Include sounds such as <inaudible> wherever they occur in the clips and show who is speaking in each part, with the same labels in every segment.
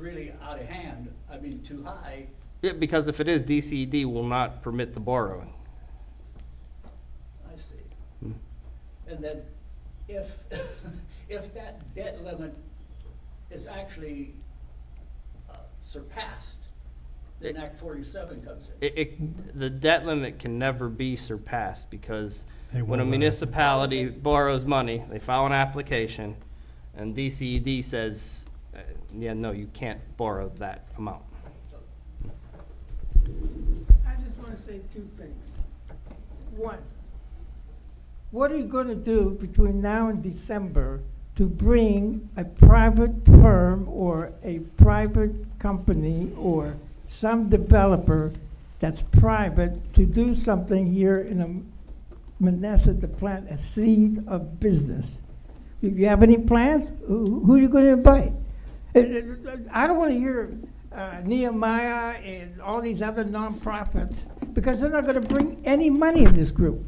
Speaker 1: really out of hand, I mean, too high,
Speaker 2: Yeah, because if it is, DCD will not permit the borrowing.
Speaker 1: I see. And then if, <laughs> if that debt limit is actually uh, surpassed, then
Speaker 2: It-
Speaker 1: Act forty-seven comes in.
Speaker 2: It, it, the debt limit can never be surpassed because
Speaker 3: They
Speaker 2: when a
Speaker 3: won't let it.
Speaker 2: municipality borrows money, they file an application and DCED says, uh, yeah, no, you can't borrow that amount.
Speaker 4: I just want to say two things. One, what are you going to do between now and December to bring a private firm or a private company or some developer that's private to do something here in Manassas to plant a seed of business? Do you have any plans? Who who are you going to invite? Uh, I don't want to hear uh, Nehemiah and all these other nonprofits because they're not going to bring any money in this group.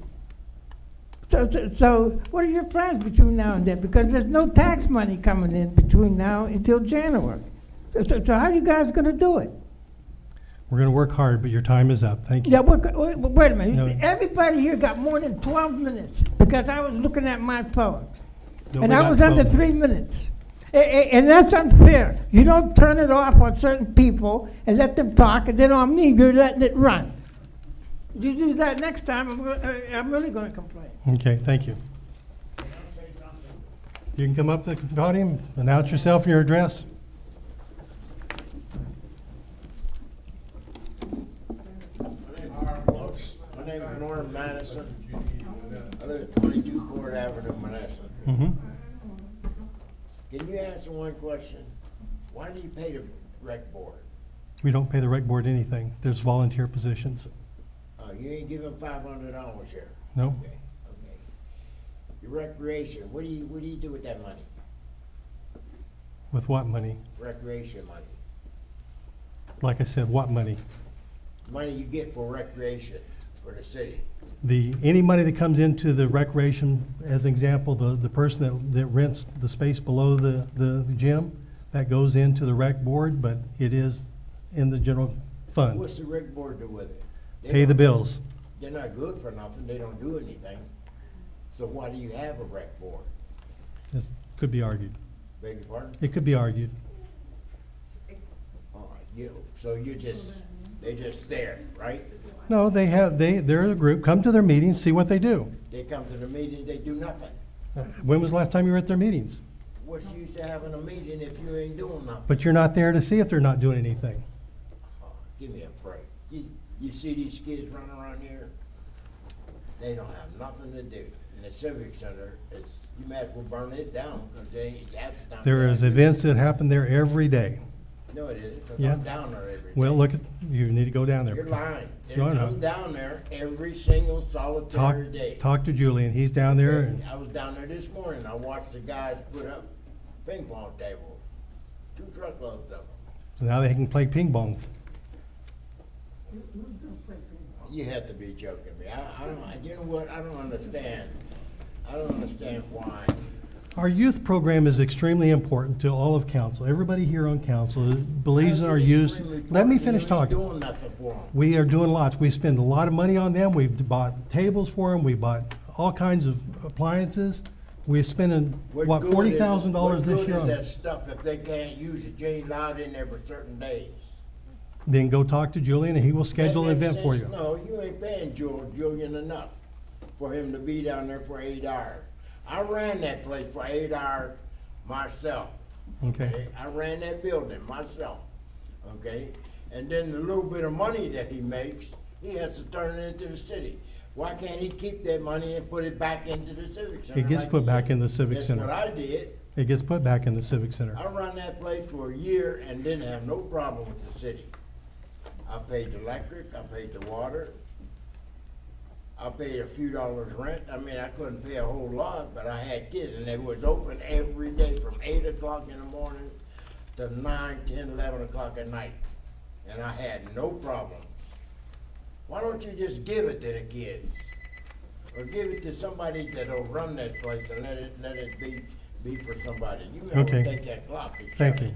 Speaker 4: So, so- so what are your plans between now and then? Because there's no tax money coming in between now until January. So- So, so how are you guys going to do it?
Speaker 3: We're going to work hard, but your time is up. Thank you.
Speaker 4: Yeah, what, wait, wait a minute.
Speaker 3: No.
Speaker 4: Everybody here got more than 12 minutes because I was looking at my phone.
Speaker 3: No,
Speaker 4: And
Speaker 3: we
Speaker 4: I
Speaker 3: got
Speaker 4: was under
Speaker 3: 12.
Speaker 4: three minutes. A- a- And that's unfair. You don't turn it off on certain people and let them talk, and then on me, you're letting it run. You do that next time, I'm go- uh, I'm really going to complain.
Speaker 3: Okay, thank you. You can come up to the podium, announce yourself and your address.
Speaker 5: My name is Norm Madison. I live at twenty-two Court Avenue, Manassas.
Speaker 3: Mhm.
Speaker 5: Can you answer one question? Why do you pay the rec board?
Speaker 3: We don't pay the rec board anything. There's volunteer positions.
Speaker 5: Uh, you ain't giving five hundred dollars here.
Speaker 3: No?
Speaker 5: Okay, okay. Your recreation, what do you, what do you do with that money?
Speaker 3: With what money?
Speaker 5: Recreation money?
Speaker 3: Like I said, what money?
Speaker 5: Money you get for recreation for the city.
Speaker 3: The, any money that comes into the recreation, as an example, the, the person that, that rents the space below the, the gym, that goes into the rec board, but it is in the general fund.
Speaker 5: What's the rec board do with it? They
Speaker 3: Pay the
Speaker 5: don't-
Speaker 3: bills.
Speaker 5: They're not good for nothing. They don't do anything. So why do you have a rec board?
Speaker 3: This could be argued.
Speaker 5: Beg your pardon?
Speaker 3: It could be argued.
Speaker 5: All right, you, so you just, they just there, right?
Speaker 3: No, they have, they, they're a group, come to their meetings, see what they do.
Speaker 5: They come to the meeting, they do nothing.
Speaker 3: Uh, When was the last time you were at their meetings?
Speaker 5: What's the use of having a meeting if you ain't doing nothing?
Speaker 3: But you're not there to see if they're not doing anything.
Speaker 5: Oh, Give me a break. You, you see these kids running around here? They don't have nothing to do. And the civic center is, you might as well burn it down, cause they ain't half the time.
Speaker 3: There is events that happen there every day.
Speaker 5: No, it isn't, cause
Speaker 3: Yeah.
Speaker 5: I'm down there every day.
Speaker 3: Well, look, at you need to go down there.
Speaker 5: You're lying. They
Speaker 3: No, I'm not.
Speaker 5: come down there every single
Speaker 3: Talk,
Speaker 5: solitary day.
Speaker 3: talk to Julian, he's down there and
Speaker 5: I was down there this morning, I watched the guys put up ping pong tables, two truckloads of them.
Speaker 3: now they can play ping pong.
Speaker 5: You have to be joking me, I, I don't, I- you know what, I don't understand, I don't understand why.
Speaker 3: Our youth program is extremely important to all of council. Everybody here on council believes in our youth. Let me finish talking.
Speaker 5: You ain't doing nothing for 'em.
Speaker 3: We are doing lots. We spend a lot of money on them. We've bought tables for them. We bought all kinds of appliances. We're spending,
Speaker 5: What
Speaker 3: what,
Speaker 5: good is-
Speaker 3: forty thousand dollars this year
Speaker 5: What
Speaker 3: on
Speaker 5: good is that
Speaker 3: it?
Speaker 5: stuff if they can't use it, you ain't allowed in there for certain days?
Speaker 3: Then go talk to Julian and he will schedule an
Speaker 5: That
Speaker 3: event
Speaker 5: makes
Speaker 3: for
Speaker 5: sense.
Speaker 3: you.
Speaker 5: No, you ain't paying Jul- Julian enough for him to be down there for eight hours. I ran that place for eight hours myself.
Speaker 3: Okay.
Speaker 5: I ran that building myself, okay? And then the little bit of money that he makes, he has to turn it into the city. Why can't he keep that money and put it back into the civic center?
Speaker 3: It gets
Speaker 5: like
Speaker 3: put
Speaker 5: he
Speaker 3: back
Speaker 5: did?
Speaker 3: in the civic
Speaker 5: That's
Speaker 3: center.
Speaker 5: what I did.
Speaker 3: It gets put back in the civic center.
Speaker 5: I run that place for a year and didn't have no problem with the city. I paid the electric, I paid the water, I paid a few dollars rent, I mean, I couldn't pay a whole lot, but I had kids, and it was open every day from eight o'clock in the morning to nine, ten, eleven o'clock at night, and I had no problem. Why don't you just give it to the kids? Or give it to somebody that'll run that place and let it, let it be, be for somebody. You know,
Speaker 3: Okay.
Speaker 5: take that clock and shut
Speaker 3: Thank
Speaker 5: it.
Speaker 3: you.